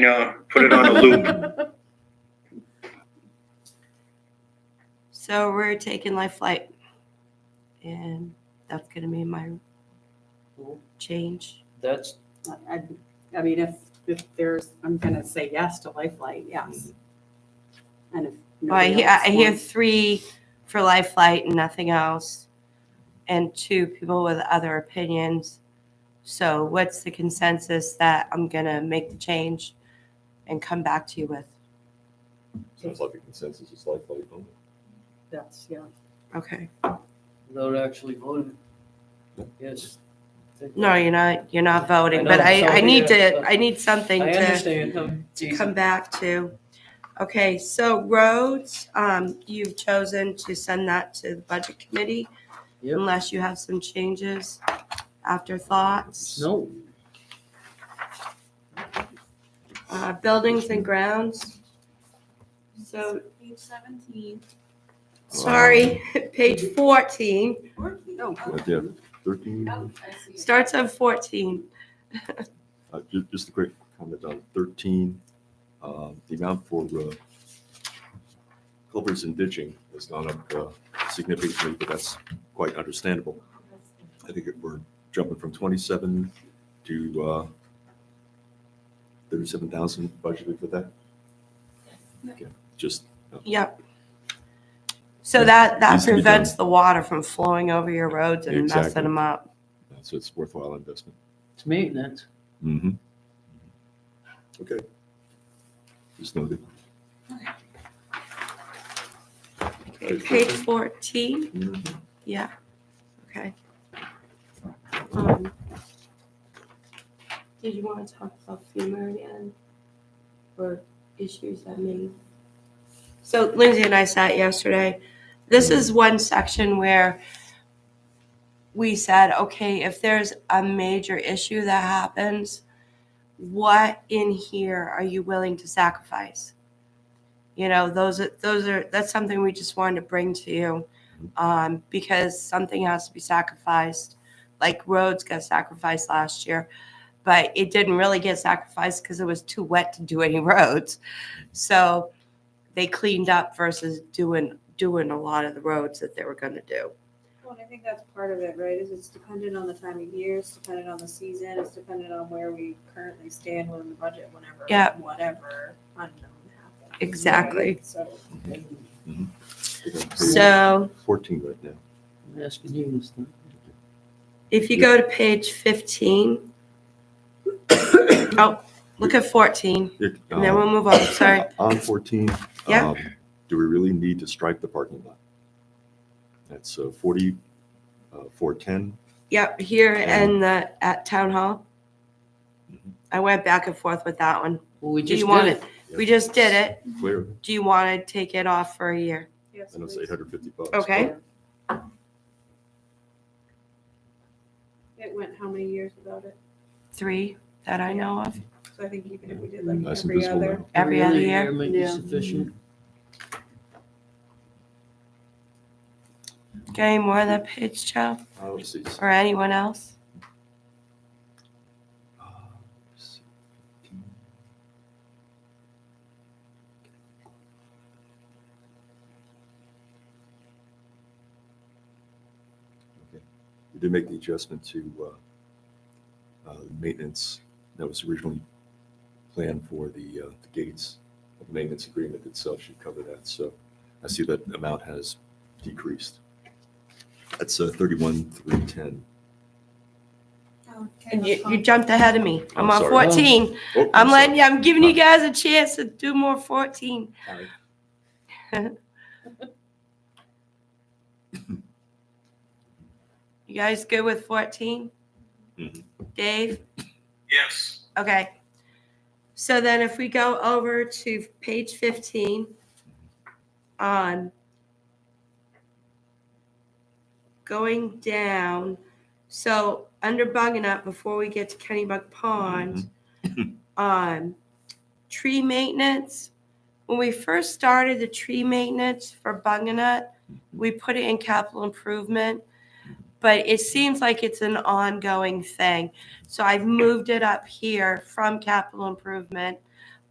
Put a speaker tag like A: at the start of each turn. A: No, uh, put it on a loop.
B: So we're taking life flight. And that's going to be my change.
C: That's,
D: I, I mean, if, if there's, I'm gonna say yes to Lifeline, yes.
E: Mhm.
D: And if.
B: Well, I,
D: nobody
B: hear, I
D: else
B: hear
D: wants-
B: three for life flight and nothing else, and two people with other opinions. So what's the consensus that I'm going to make the change and come back to you with?
E: Sounds like a consensus, it's like, like, oh,
D: That's, yeah.
B: Okay.
C: without actually voting. Yes.
B: No, you're not. You're not voting, but
C: I know,
B: I, I
C: so
B: need
C: we, uh,
B: to. I need something
C: I
B: to.
C: understand. um,
B: to come back to. Okay, so roads, um, you've chosen to send that to the budget committee
C: Yep.
B: unless you have some changes, afterthoughts.
C: No,
B: Uh, buildings and grounds. So,
F: Page seventeen.
B: sorry, page fourteen,
D: No.
G: Oh,
E: right there, thirteen,
F: Oh, I
E: Mm-hmm.
F: see.
B: starts on fourteen.
E: uh, ju- just a quick comment on thirteen. Uh, the amount for, uh, culverts and ditching has gone up uh, significantly, but that's quite understandable. I think it- we're jumping from twenty-seven to, uh, thirty-seven thousand budgeted for that. Okay, Just,
B: Yep. So that, that
E: Needs to be done.
B: prevents the water from flowing over your roads and messing
E: Exactly.
B: them up.
E: uh, so it's worthwhile investment.
C: it's maintenance.
E: Mm-hmm. Okay. Just noted.
B: Okay, Page fourteen.
E: Mhm.
B: Yeah, okay. Um, Did you want to talk about FEMA again? Or issues that may? So Lindsay and I sat yesterday. This is one section where we said, okay, if there's a major issue that happens, what in here are you willing to sacrifice? You know, those are, those are, that's something we just wanted to bring to you um, because something has to be sacrificed. Like roads got sacrificed last year, but it didn't really get sacrificed because it was too wet to do any roads. So they cleaned up versus doing doing a lot of the roads that they were going to do.
G: Well, and I think that's part of it, right, is it's dependent on the time of year, it's dependent on the season, it's dependent on where we currently stand within the budget whenever,
B: Yeah.
G: whatever unknown happens. right?
B: Exactly.
G: So.
B: So
E: Fourteen right now.
C: I'm asking you this thing.
B: if you go to page fifteen, oh, look at fourteen,
E: It,
B: and then
E: um,
B: we'll move on. Sorry.
E: On fourteen.
B: Yeah.
E: um, Do we really need to stripe the parking lot? That's uh, forty, uh, four ten.
B: Yep, here and the at town hall. I went back and forth with that one.
C: Well, we
B: Do
C: just
B: you want
C: did it.
B: it? We just did it.
E: Clear,
B: Do you want to take it off for a year?
G: Yes,
E: and it's
G: please.
E: eight hundred fifty bucks.
B: Okay.
G: It went how many years without it?
B: Three that I know of.
G: So I think even if we did like
E: Mm, Nice and
G: every
E: visible
G: other,
E: now.
B: Every other year?
C: Might be
D: Yeah.
C: sufficient.
B: Got any more on that page, Joe,
E: Uh, let's see.
B: or anyone else?
E: Okay. We did make the adjustment to uh, uh, maintenance that was originally planned for the uh, the gates. The Maintenance agreement itself should cover that, so I see that amount has decreased. That's uh, thirty-one, three, ten.
G: Oh,
B: And You, you jumped ahead of me. I'm
E: I'm
B: on
E: sorry.
B: fourteen.
E: Oh,
B: I'm letting you, I'm giving you guys a chance to do more fourteen. You guys good with fourteen? Mm-hmm.
E: Mhm.
B: Dave?
A: Yes.
B: Okay. So then if we go over to page fifteen on going down, so under bugging up before we get to Kennybug Pond, um, tree maintenance. When we first started the tree maintenance for bugging up, we put it in capital improvement. But it seems like it's an ongoing thing. So I've moved it up here from capital improvement